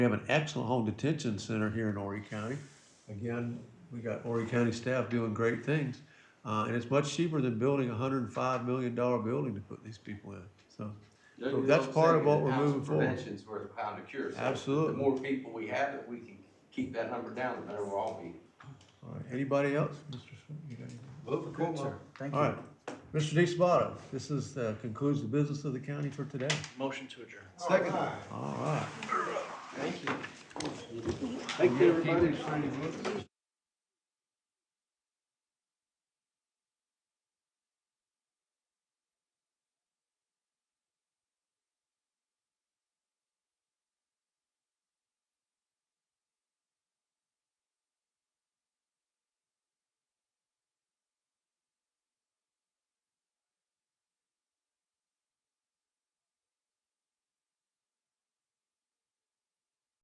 We have an excellent home detention center here in Horry County. Again, we got Horry County staff doing great things. Uh, and it's much cheaper than building a hundred and five million dollar building to put these people in, so. They're- So that's they're part of saying what that we're ounce of moving forward. Prevention's worth a pound of cure. So Absolutely. The more people we have, that we can keep that number down, the better we'll all be. All right, anybody else? Mr. Swin- you got anything? Vote for sir. Thank All you. right, Mr. De Spotto, this is, uh, concludes the business of the county for today. Motion to adjourn. Second. All right. Thank you, everybody.